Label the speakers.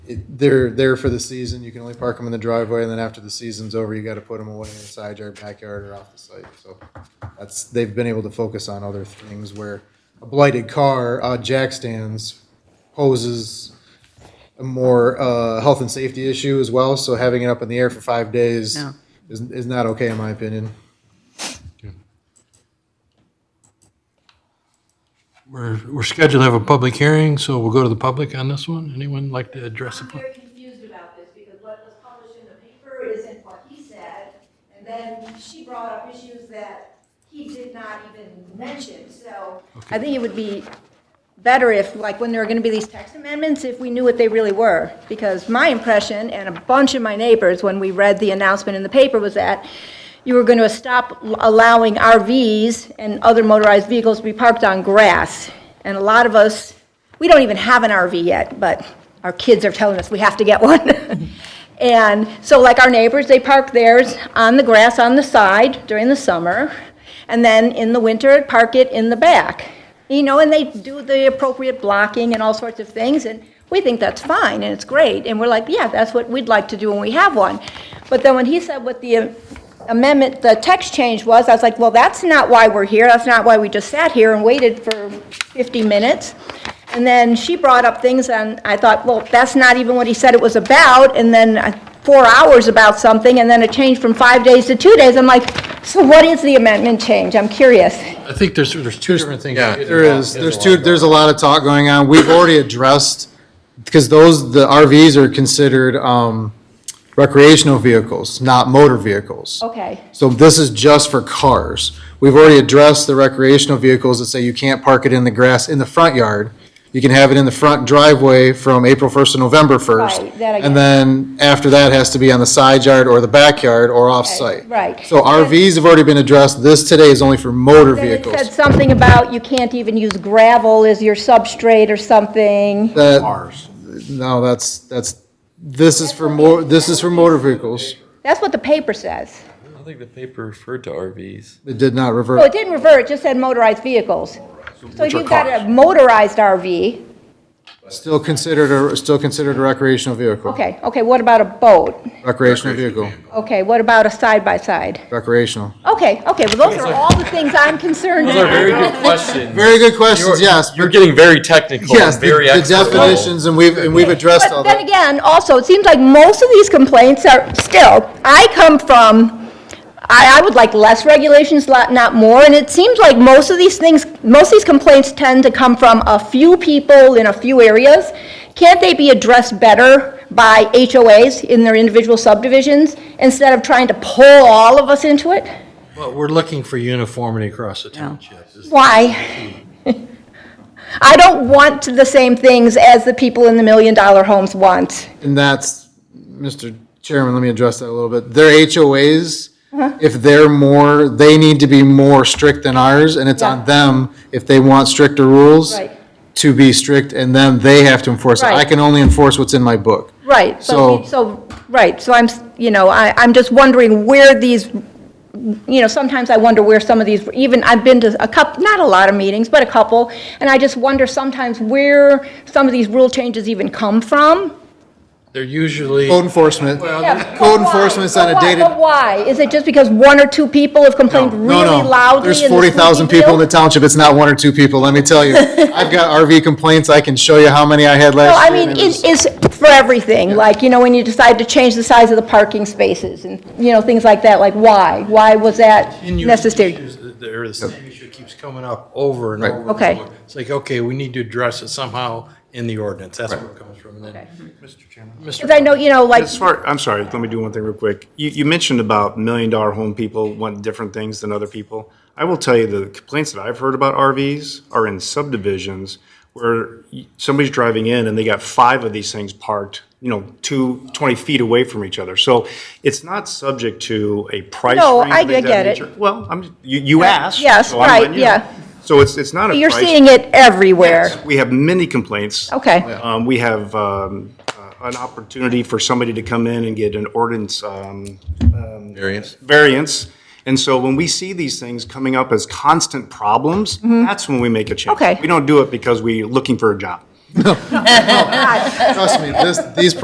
Speaker 1: it- they're there for the season. You can only park them in the driveway, and then after the season's over, you got to put them away in the side yard, backyard, or off the site. So that's, they've been able to focus on other things where a blighted car, uh, jack stands poses a more, uh, health and safety issue as well. So having it up in the air for five days
Speaker 2: No.
Speaker 1: is, is not okay in my opinion.
Speaker 3: We're, we're scheduled to have a public hearing, so we'll go to the public on this one. Anyone like to address the
Speaker 4: I'm
Speaker 3: public?
Speaker 4: very confused about this because what was published in the paper isn't what he said. And then she brought up issues that he did not even mention, so.
Speaker 2: I think it would be better if, like, when there are going to be these text amendments, if we knew what they really were. Because my impression, and a bunch of my neighbors, when we read the announcement in the paper, was that you were going to stop allowing RVs and other motorized vehicles to be parked on grass. And a lot of us, we don't even have an RV yet, but our kids are telling us we have to get one. And so like our neighbors, they park theirs on the grass on the side during the summer, and then in the winter, park it in the back. You know, and they do the appropriate blocking and all sorts of things, and we think that's fine, and it's great. And we're like, yeah, that's what we'd like to do when we have one. But then when he said what the amendment, the text change was, I was like, well, that's not why we're here. That's not why we just sat here and waited for 50 minutes. And then she brought up things, and I thought, well, that's not even what he said it was about, and then uh, four hours about something, and then it changed from five days to two days. I'm like, so what is the amendment change? I'm curious.
Speaker 3: I think there's, there's two different things.
Speaker 1: Yeah, there is, there's two, there's a lot of talk going on. We've already addressed, because those, the RVs are considered um, recreational vehicles, not motor vehicles.
Speaker 2: Okay,
Speaker 1: So this is just for cars. We've already addressed the recreational vehicles that say you can't park it in the grass in the front yard. You can have it in the front driveway from April 1st to November 1st.
Speaker 2: Right, that I get.
Speaker 1: And then after that has to be on the side yard or the backyard or off-site.
Speaker 2: right.
Speaker 1: So RVs have already been addressed. This today is only for motor
Speaker 2: Then it
Speaker 1: vehicles.
Speaker 2: said something about you can't even use gravel as your substrate or something.
Speaker 1: That. No, that's, that's, this is for more, this is for motor vehicles.
Speaker 2: That's what the paper says.
Speaker 5: I don't think the paper referred to RVs.
Speaker 1: It did not
Speaker 2: Well, it
Speaker 1: revert.
Speaker 2: didn't revert, it just said motorized vehicles. So if
Speaker 3: are
Speaker 2: you've got a
Speaker 3: cars.
Speaker 2: motorized RV,
Speaker 1: Still considered, a still considered a recreational vehicle.
Speaker 2: okay, okay, what about a boat?
Speaker 1: Recreational vehicle,
Speaker 2: Okay, what about a side-by-side?
Speaker 1: recreational.
Speaker 2: Okay, okay, well, those are all the things I'm concerned
Speaker 5: Those are
Speaker 2: about.
Speaker 5: very good questions.
Speaker 1: Very good questions, yes.
Speaker 5: You're getting very technical
Speaker 1: Yes,
Speaker 5: and
Speaker 1: the
Speaker 5: very
Speaker 1: the
Speaker 5: expert level.
Speaker 1: definitions, and we've, and we've addressed all
Speaker 2: But then
Speaker 1: that.
Speaker 2: again, also, it seems like most of these complaints are, still, I come from, I, I would like less regulations, lot- not more, and it seems like most of these things, most of these complaints tend to come from a few people in a few areas. Can't they be addressed better by HOAs in their individual subdivisions instead of trying to pull all of us into it?
Speaker 3: But we're looking for uniformity across the township.
Speaker 2: Why? I don't want the same things as the people in the million-dollar homes want.
Speaker 1: And that's, Mr. Chairman, let me address that a little bit. Their HOAs,
Speaker 2: Uh-huh.
Speaker 1: if they're more, they need to be more strict than ours, and it's on
Speaker 2: Yeah.
Speaker 1: them if they want stricter rules
Speaker 2: Right.
Speaker 1: to be strict, and then they have to enforce it. I
Speaker 2: Right.
Speaker 1: can only enforce what's in my book.
Speaker 2: Right, so,
Speaker 1: So-
Speaker 2: we- so, right, so I'm, s- you know, I, I'm just wondering where these, you know, sometimes I wonder where some of these, even, I've been to a couple, not a lot of meetings, but a couple, and I just wonder sometimes where some of these rule changes even come from.
Speaker 3: They're usually,
Speaker 1: Code enforcement,
Speaker 2: Yeah,
Speaker 1: code
Speaker 2: but why?
Speaker 1: enforcement's on
Speaker 2: But
Speaker 1: a
Speaker 2: why-
Speaker 1: dated.
Speaker 2: But why? Is it just because one or two people have complained
Speaker 1: No,
Speaker 2: really
Speaker 1: no.
Speaker 2: loudly?
Speaker 1: There's
Speaker 2: and the
Speaker 1: forty thousand
Speaker 2: squeaky
Speaker 1: people in
Speaker 2: wheel?
Speaker 1: the township, it's not one or two people, let me tell you. I've got RV complaints, I can show you how many I had
Speaker 2: No,
Speaker 1: last
Speaker 2: I
Speaker 1: year.
Speaker 2: mean,
Speaker 1: and it was-
Speaker 2: it is for everything, like, you know, when you decide to change the size of the parking spaces and, you know, things like that, like why? Why was that
Speaker 3: Continuing
Speaker 2: necessary?
Speaker 3: issues, There, the same issue keeps coming up over and
Speaker 1: Right.
Speaker 3: over. and
Speaker 2: Okay.
Speaker 3: over. It's like, okay, we need to address it somehow in the ordinance. That's where it comes from. And then,
Speaker 6: Mr. Chairman.
Speaker 3: Mr.
Speaker 2: Because I know, you know, like,
Speaker 6: As far, I'm sorry, let me do one thing real quick. You, you mentioned about million dollar home people want different things than other people. I will tell you the complaints that I've heard about RVs are in subdivisions where y- somebody's driving in and they got five of these things parked, you know, two, 20 feet away from each other. So it's not subject to a price.
Speaker 2: No,
Speaker 6: range
Speaker 2: I-
Speaker 6: of things
Speaker 2: I
Speaker 6: of
Speaker 2: get
Speaker 6: that
Speaker 2: it.
Speaker 6: nature. Well, I'm, you, you asked.
Speaker 2: yes,
Speaker 6: so I'm
Speaker 2: right,
Speaker 6: letting you
Speaker 2: yeah.
Speaker 6: know. So it's, it's not a price.
Speaker 2: you're seeing it everywhere.
Speaker 6: We have many complaints.
Speaker 2: Okay,
Speaker 6: Um, we have, um, uh, an opportunity for somebody to come in and get an ordinance, um,
Speaker 5: Variance.
Speaker 6: variance. And so when we see these things coming up as constant problems, that's when we make a change.
Speaker 2: Mm-hmm. Okay.
Speaker 6: We don't do it because we're looking for a job.
Speaker 1: Trust me, this, these